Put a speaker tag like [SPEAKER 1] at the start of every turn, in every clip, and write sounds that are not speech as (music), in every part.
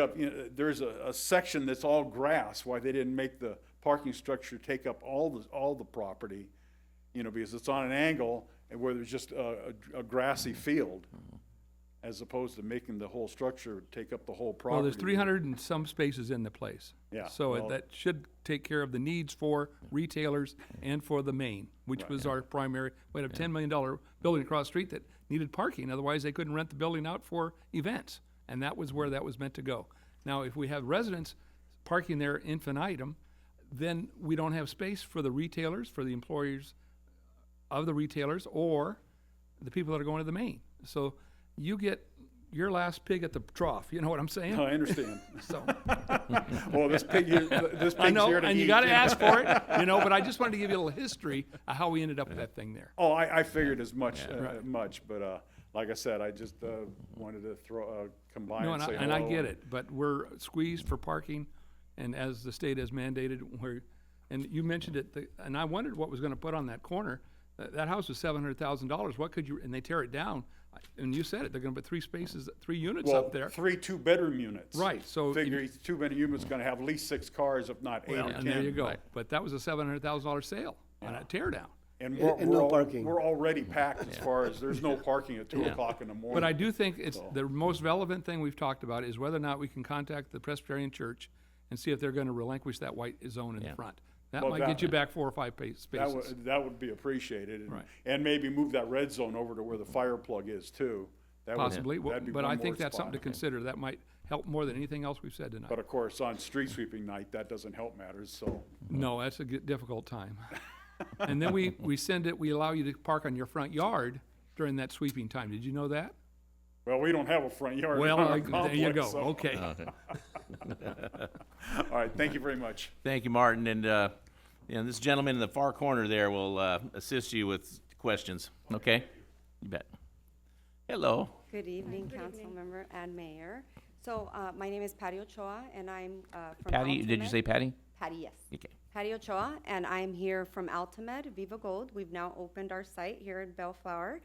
[SPEAKER 1] up, you know, there's a, a section that's all grass, why they didn't make the parking structure take up all the, all the property, you know, because it's on an angle and where there's just a, a a grassy field, as opposed to making the whole structure take up the whole property.
[SPEAKER 2] Well, there's three hundred and some spaces in the place.
[SPEAKER 1] Yeah,
[SPEAKER 2] So it-
[SPEAKER 1] well-
[SPEAKER 2] that should take care of the needs for retailers and for the main, which was our primary, we had a ten million dollar building across the street that needed parking, otherwise they couldn't rent the building out for events. And that was where that was meant to go. Now, if we have residents parking there infinitum, then we don't have space for the retailers, for the employers, of the retailers or the people that are going to the main. So you get your last pig at the trough. You know what I'm
[SPEAKER 1] (laughs)
[SPEAKER 2] saying?
[SPEAKER 1] I understand. (laughs)
[SPEAKER 2] So
[SPEAKER 1] Well, this pig,
[SPEAKER 2] (laughs)
[SPEAKER 1] here- this
[SPEAKER 2] I
[SPEAKER 1] pig's
[SPEAKER 2] know,
[SPEAKER 1] here to eat.
[SPEAKER 2] and you got to ask for
[SPEAKER 1] (laughs)
[SPEAKER 2] it, you know. But I just wanted to give you a little history of how we ended up with that thing there.
[SPEAKER 1] Oh, I, I figured as much, uh, much, but, uh, like I said, I just, uh, wanted to throw, uh, come by
[SPEAKER 2] No,
[SPEAKER 1] and
[SPEAKER 2] and I,
[SPEAKER 1] say hello.
[SPEAKER 2] and I get it, but we're squeezed for parking, and as the state has mandated, we're, and you mentioned it, the- and I wondered what was gonna put on that corner. That, that house was seven hundred thousand dollars, what could you, and they tear it down, I- and you said it, they're gonna put three spaces, three units
[SPEAKER 1] Well,
[SPEAKER 2] up there.
[SPEAKER 1] Three two-bedroom units.
[SPEAKER 2] Right, so
[SPEAKER 1] Figure
[SPEAKER 2] you-
[SPEAKER 1] each two-bedroom unit's gonna have at least six cars, if not eight or ten.
[SPEAKER 2] And there you go, but that was a seven hundred thousand dollar sale on a tear down.
[SPEAKER 1] And we're,
[SPEAKER 3] and
[SPEAKER 1] we're
[SPEAKER 3] no
[SPEAKER 1] al-
[SPEAKER 3] parking.
[SPEAKER 1] We're already packed as far as, there's no parking at two o'clock in the morning.
[SPEAKER 2] But I do think it's, the most relevant thing we've talked about is whether or not we can contact the Presbyterian Church and see if they're gonna relinquish that white zone in the front. That
[SPEAKER 1] Well,
[SPEAKER 2] might get
[SPEAKER 1] that-
[SPEAKER 2] you back four or five pa-
[SPEAKER 1] That
[SPEAKER 2] spaces.
[SPEAKER 1] would, that would be appreciated. and-
[SPEAKER 2] Right.
[SPEAKER 1] And maybe move that red zone over to where the fire plug is too. That would-
[SPEAKER 2] Possibly, Well,
[SPEAKER 1] that'd be
[SPEAKER 2] but
[SPEAKER 1] one
[SPEAKER 2] I
[SPEAKER 1] more
[SPEAKER 2] think that's something to
[SPEAKER 1] spot.
[SPEAKER 2] consider. That might help more than anything else we've said
[SPEAKER 1] But uh,
[SPEAKER 2] tonight.
[SPEAKER 1] of course, on street sweeping night, that doesn't help matters, so.
[SPEAKER 2] No, that's a g- difficult time. And then we, we send it, we allow you to park on your front yard during that sweeping time. Did you know that?
[SPEAKER 1] Well, we don't have a front yard. in
[SPEAKER 2] Well,
[SPEAKER 1] our
[SPEAKER 2] I- there you go,
[SPEAKER 1] complex, so-
[SPEAKER 2] okay.
[SPEAKER 1] All right, thank you very much.
[SPEAKER 4] Thank you, Martin, and, uh, and this gentleman in the far corner there will, uh, assist you with questions, okay? You bet. Hello,
[SPEAKER 5] Good evening, Councilmember and Mayor. So, uh, my name is Patty Ochoa, and I'm, uh, from
[SPEAKER 4] Patty, did you
[SPEAKER 5] Altamed.
[SPEAKER 4] say Patty?
[SPEAKER 5] Patty, yes.
[SPEAKER 4] Okay.
[SPEAKER 5] Patty Ochoa, and I'm here from Altimed, Viva Gold. We've now opened our site here in Bellflower.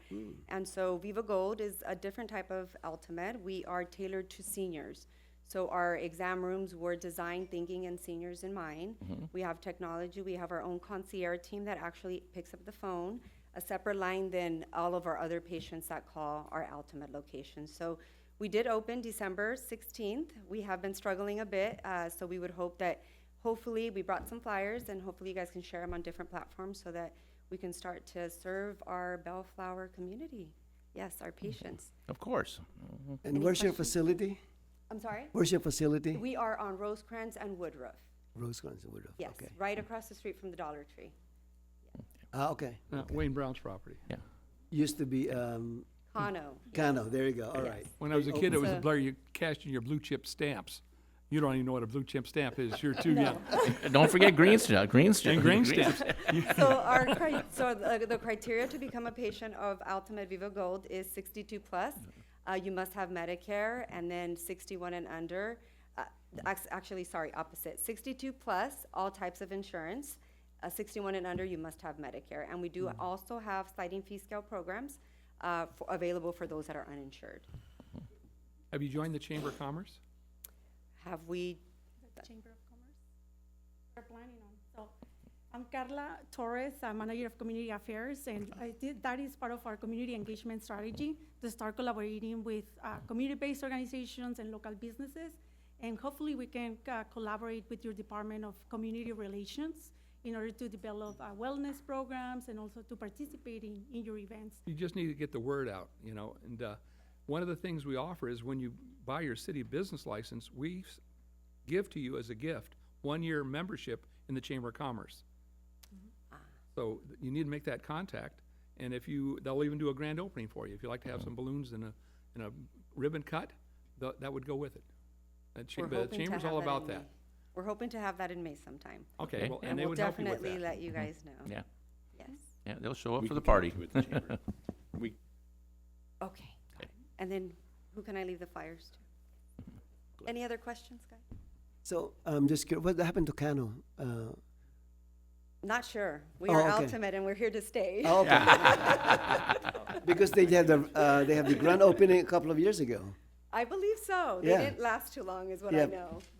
[SPEAKER 5] And so Viva Gold is a different type of Altimed. We are tailored to seniors. So our exam rooms were designed thinking and seniors in mind. We have technology, we have our own concierge team that actually picks up the phone, a separate line than all of our other patients that call our Altimed location. So we did open December 16th. We have been struggling a bit, uh, so we would hope that hopefully we brought some flyers and hopefully you guys can share them on different platforms so that we can start to serve our bellflower community yes our patients
[SPEAKER 4] Of course.
[SPEAKER 3] And where's your facility?
[SPEAKER 5] i'm sorry
[SPEAKER 3] Where's your facility?
[SPEAKER 5] we are on rosecrans and woodruff
[SPEAKER 3] Rosecrans and Woodruff.
[SPEAKER 5] yes
[SPEAKER 3] Okay.
[SPEAKER 5] right across the street from the dollar tree
[SPEAKER 3] Ah, okay.
[SPEAKER 2] Uh, Wayne Brown's property.
[SPEAKER 4] Yeah.
[SPEAKER 3] Used to be um,
[SPEAKER 5] Cano.
[SPEAKER 3] Cano. There you go. All right. Oh,
[SPEAKER 2] When
[SPEAKER 5] Oh,
[SPEAKER 2] I was a kid, it was a
[SPEAKER 5] So-
[SPEAKER 2] blur, you cashed in your blue chip stamps. You don't even know what a blue chip stamp is, you're
[SPEAKER 5] (laughs)
[SPEAKER 2] too young.
[SPEAKER 4] And Don't forget Greenstone, Greenstone.
[SPEAKER 2] And
[SPEAKER 4] (laughs)
[SPEAKER 2] green stamps,
[SPEAKER 5] so our cri- so the, the criteria to become a patient of Ultimate Viva Gold is 62 plus. Uh, you must have Medicare, and then 61 and under. Uh, ac- actually, sorry, opposite. 62 plus, all types of insurance. Uh, 61 and under, you must have Medicare, and we do
[SPEAKER 2] Mm.
[SPEAKER 5] also have sliding fee scale programs uh, for, available for those that are uninsured.
[SPEAKER 2] have you joined the Chamber of Commerce?
[SPEAKER 5] Have we?
[SPEAKER 6] Chamber of Commerce. We're planning on, so, I'm Carla Torres, I'm Manager of Community Affairs, and I did, that is part of our community engagement strategy, to start collaborating with, uh, community-based organizations and local businesses, and hopefully we can, uh, collaborate with your Department of Community Relations in order to develop, uh, wellness programs and also to participate in, in your events.
[SPEAKER 2] You just need to get the word out, you know, and, uh, one of the things we offer is when you buy your city business license, we s- give to you as a gift, one-year membership in the Chamber of Commerce.
[SPEAKER 5] Mm-hmm. Ah.
[SPEAKER 2] So th- you need to make that contact, and if you, they'll even do a grand opening for you. If you like to
[SPEAKER 5] Mm-hmm.
[SPEAKER 2] have some balloons and a, and a ribbon cut, tha- that would go with it. The cha-
[SPEAKER 5] We're
[SPEAKER 2] The
[SPEAKER 5] hoping to
[SPEAKER 2] Chamber's
[SPEAKER 5] have
[SPEAKER 2] all
[SPEAKER 5] that
[SPEAKER 2] about
[SPEAKER 5] in May.
[SPEAKER 2] that.
[SPEAKER 5] We're hoping to have that in May sometime,
[SPEAKER 2] Okay,
[SPEAKER 4] Okay.
[SPEAKER 2] well, and
[SPEAKER 5] and
[SPEAKER 2] they
[SPEAKER 5] we'll
[SPEAKER 2] would help you with
[SPEAKER 5] definitely
[SPEAKER 2] that. Mm-hmm.
[SPEAKER 5] let you guys know.
[SPEAKER 4] Yeah,
[SPEAKER 5] Yes.
[SPEAKER 4] yeah, they'll show up for the party. (laughs)
[SPEAKER 5] Okay, got it. And then who can I leave the flyers to? Any other questions, guys?
[SPEAKER 3] So I'm just curious. What happened to Cano? Uh,
[SPEAKER 5] Not sure. We
[SPEAKER 3] Oh,
[SPEAKER 5] are
[SPEAKER 3] okay.
[SPEAKER 5] ultimate and we're here to stay.
[SPEAKER 3] oh, (laughs) okay. because they had the uh, they have the grand opening a couple of years ago.
[SPEAKER 5] Uh, I believe so. They
[SPEAKER 3] Yeah.
[SPEAKER 5] didn't last too long, is what
[SPEAKER 3] Yeah.
[SPEAKER 5] I know.